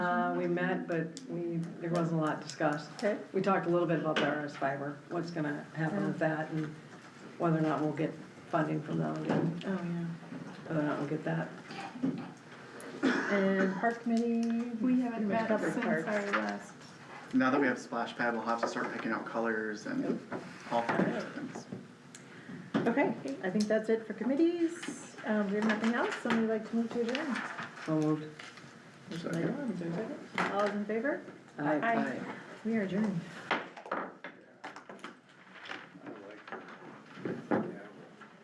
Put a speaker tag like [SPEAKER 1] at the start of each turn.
[SPEAKER 1] Uh, we met, but we, there wasn't a lot discussed.
[SPEAKER 2] Okay.
[SPEAKER 1] We talked a little bit about the RS fiber, what's gonna happen with that and whether or not we'll get funding from them, and
[SPEAKER 2] Oh, yeah.
[SPEAKER 1] whether or not we'll get that.
[SPEAKER 2] And park committee?
[SPEAKER 3] We haven't
[SPEAKER 2] pretty much
[SPEAKER 3] met
[SPEAKER 2] covered
[SPEAKER 3] since our
[SPEAKER 2] parks.
[SPEAKER 3] last,
[SPEAKER 4] Now that we have splash pad, we'll have to start picking out colors and all kinds of things.
[SPEAKER 2] Okay, I think that's it for committees. Um, we have nothing else, somebody like to move to adjourn?
[SPEAKER 1] So moved.
[SPEAKER 2] Motion by Dawn, is there a second? All those in favor?
[SPEAKER 1] Aye.
[SPEAKER 3] Aye.
[SPEAKER 2] We are adjourned.